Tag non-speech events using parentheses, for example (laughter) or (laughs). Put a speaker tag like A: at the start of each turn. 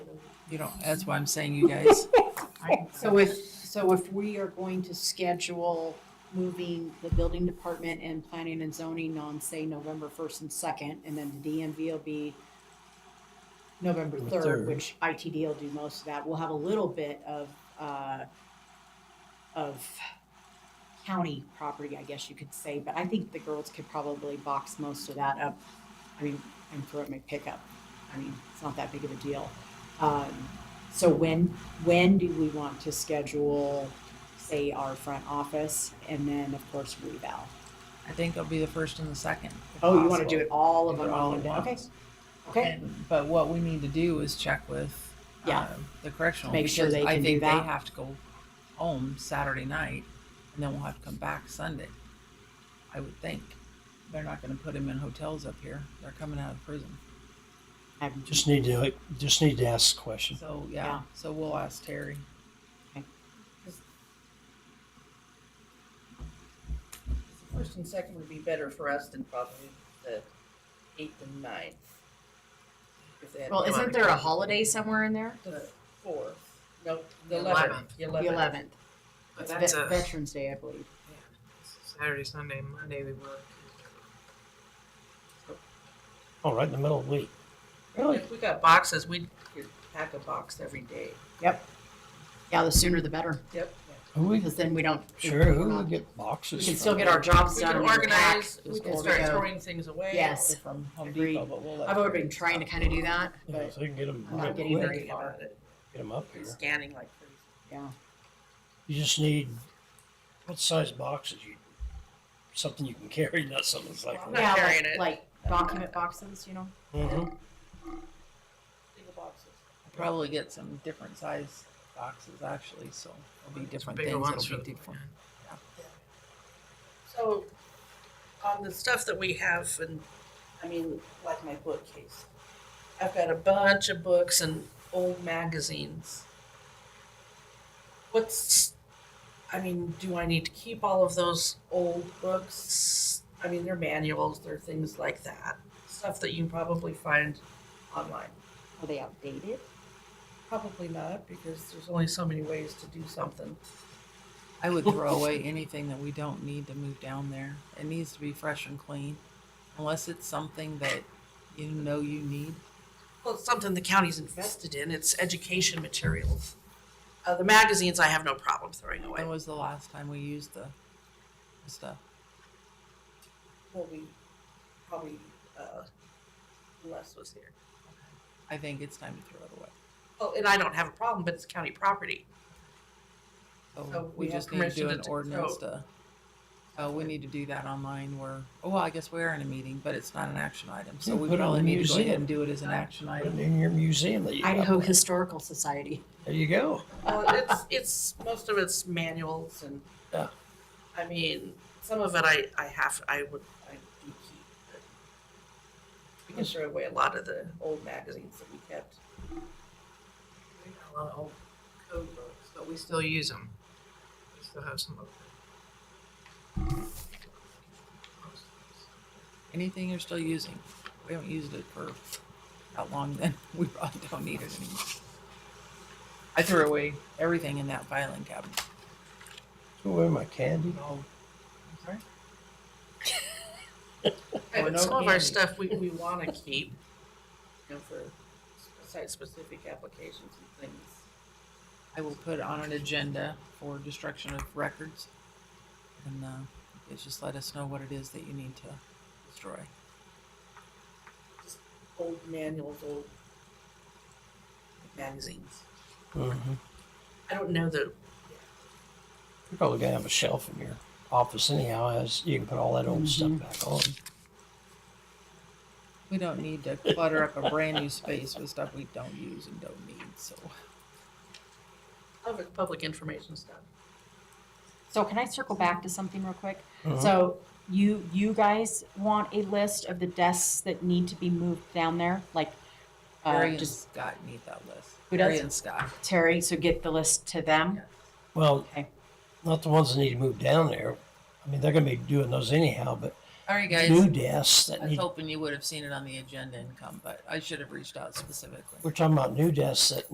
A: You know, that's why I'm saying you
B: (laughs)
A: guys.
B: So if, so if we are going to schedule moving the building department and planning and zoning on, say, November first and second, and then the DMV will be November
A: The
B: third,
A: third.
B: which ITD will do most of that, we'll have a little bit of, uh, of county property, I guess you could say, but I think the girls could probably box most of that up. I mean, and throw it in my pickup. I mean, it's not that big of a deal. Um, so when, when do we want to schedule, say, our front office and then, of course, reval?
A: I think it'll be the first and the second. if
B: Oh, you want to
A: possible.
B: do it all of
A: Do it
B: them all
A: all
B: in
A: at
B: one? Okay,
A: once.
B: okay.
A: And- But what we need to do is check with
B: Yeah.
A: uh, the correctional.
B: Make sure
A: because
B: they
A: I
B: can do
A: think they
B: that.
A: have to go home Saturday night and then we'll have to come back Sunday. I would think. They're not gonna put him in hotels up here. They're coming out of prison.
B: I'm just-
C: Just need to, like, just need to ask the question.
A: So,
B: Yeah.
A: yeah, so we'll ask Terry.
D: The First and second would be better for us than probably the eighth and ninth. if they had
B: Well,
D: to go out
B: isn't
D: of
B: there a
D: town.
B: holiday somewhere in there?
D: The fourth, no,
E: The
D: the eleventh.
E: eleventh.
D: The
B: The eleventh.
E: But that's a
B: Veterans Day, I believe.
E: Saturday, Sunday, Monday we work.
C: Oh, right in the middle of the week.
D: If we got boxes, we'd could pack a box every day.
B: Yeah, the sooner the better,
D: Yep.
C: Who we,
B: because then we don't.
C: sure,
B: we're
C: who
B: not-
C: we get boxes
B: We can
C: from?
B: still get our jobs
D: We
B: done.
D: can
B: and we're back.
D: organize, we
B: Just
D: can
B: go.
D: start throwing things away.
B: Yes.
A: From Home
B: Agreed.
A: Depot, but we'll let.
B: I've already been trying to kind of do that,
C: Yeah,
B: but
C: so we can get them,
B: I'm not getting
D: We'll
B: very
D: think
B: far.
D: about it.
C: get 'em up here.
D: Scanning like crazy.
C: You just need, what size boxes you, something you can carry, not something that's like.
D: I'm not
B: yeah,
D: carrying
B: like,
D: it.
B: like document boxes, you know? Mm-hmm.
C: Mhm.
D: Single boxes.
A: Probably get some different size boxes actually, so it'll be different
E: Bigger
A: things.
E: ones for
A: It'll
E: the
A: be different.
D: So, on the stuff that we have, and I mean, like my bookcase, I've got a bunch of books and old magazines. What's, I mean, do I need to keep all of those old books? I mean, they're manuals, they're things like that, stuff that you probably find online.
B: Are they outdated?
D: Probably not, because there's only so many ways to do something.
A: I would throw away anything that we don't need to move down there. It needs to be fresh and clean, unless it's something that you know you need.
D: Well, it's something the county's invested in. It's education materials. Uh, the magazines, I have no problem throwing away.
A: When was the last time we used the the stuff?
D: Well, we probably, uh, Les was here.
A: I think it's time to throw it away.
D: Well, Oh, and I don't have a problem, but it's county property.
A: So
D: So
A: Oh, we
D: we have
A: just need to
D: permission
A: do
D: to
A: an
D: t-
A: ordinance
D: so-
A: to, uh, we need to do that online where, oh, well, I guess we're in a meeting, but it's not an action item. So
C: Yeah,
A: we
C: put it in
A: probably
C: the
A: need to go ahead
C: museum.
A: and do it as an action
C: Put 'em
A: item.
C: In your museum that you. got.
B: Idaho Historical Society.
C: There you go.
D: Well, it's, it's, most of it's manuals and.
C: Yeah.
D: I mean, some of it I, I have, I would, I do keep. but We can throw away a lot of the old magazines that we kept.
E: We got a lot of old code books, but we still use them. We still have some of them.
A: Anything you're still using. We haven't used it for how long then? (laughs) We probably don't need it anymore. I threw away everything in that filing cabinet.
C: Throw away my candy.
A: No. Sorry?
D: Yeah,
A: Or
D: but
A: no
D: some of our
A: candy.
D: stuff
A: (laughs)
D: we, we wanna keep, you know, for site-specific applications and things.
A: I will put on an agenda for destruction of records. And, uh, you guys just let us know what it is that you need to destroy.
D: Old manuals, old magazines.
B: Mm-hmm.
C: Mhm.
D: I don't know the,
C: You're probably gonna have a shelf in your office anyhow, as you can put all that old
B: Mm-hmm.
C: stuff back on.
A: We don't need to clutter up a brand new space with stuff we don't use and don't need, so.
D: public, public information stuff.
B: So can I circle back to something real quick?
C: Mhm.
B: So you, you guys want a list of the desks that need to be moved down there, like, uh,
A: Terry and
B: just
A: Scott need that list.
B: Who does?
A: Terry and Scott.
B: Terry, so get the list to them?
C: Well,
B: Okay.
C: not the ones that need to move down there. I mean, they're gonna be doing those anyhow, but
A: All right,
C: new
A: guys.
C: desks that
A: I was
C: need,
A: hoping you would have seen it on the agenda and come, but I should have reached out specifically.
C: we're talking about new desks that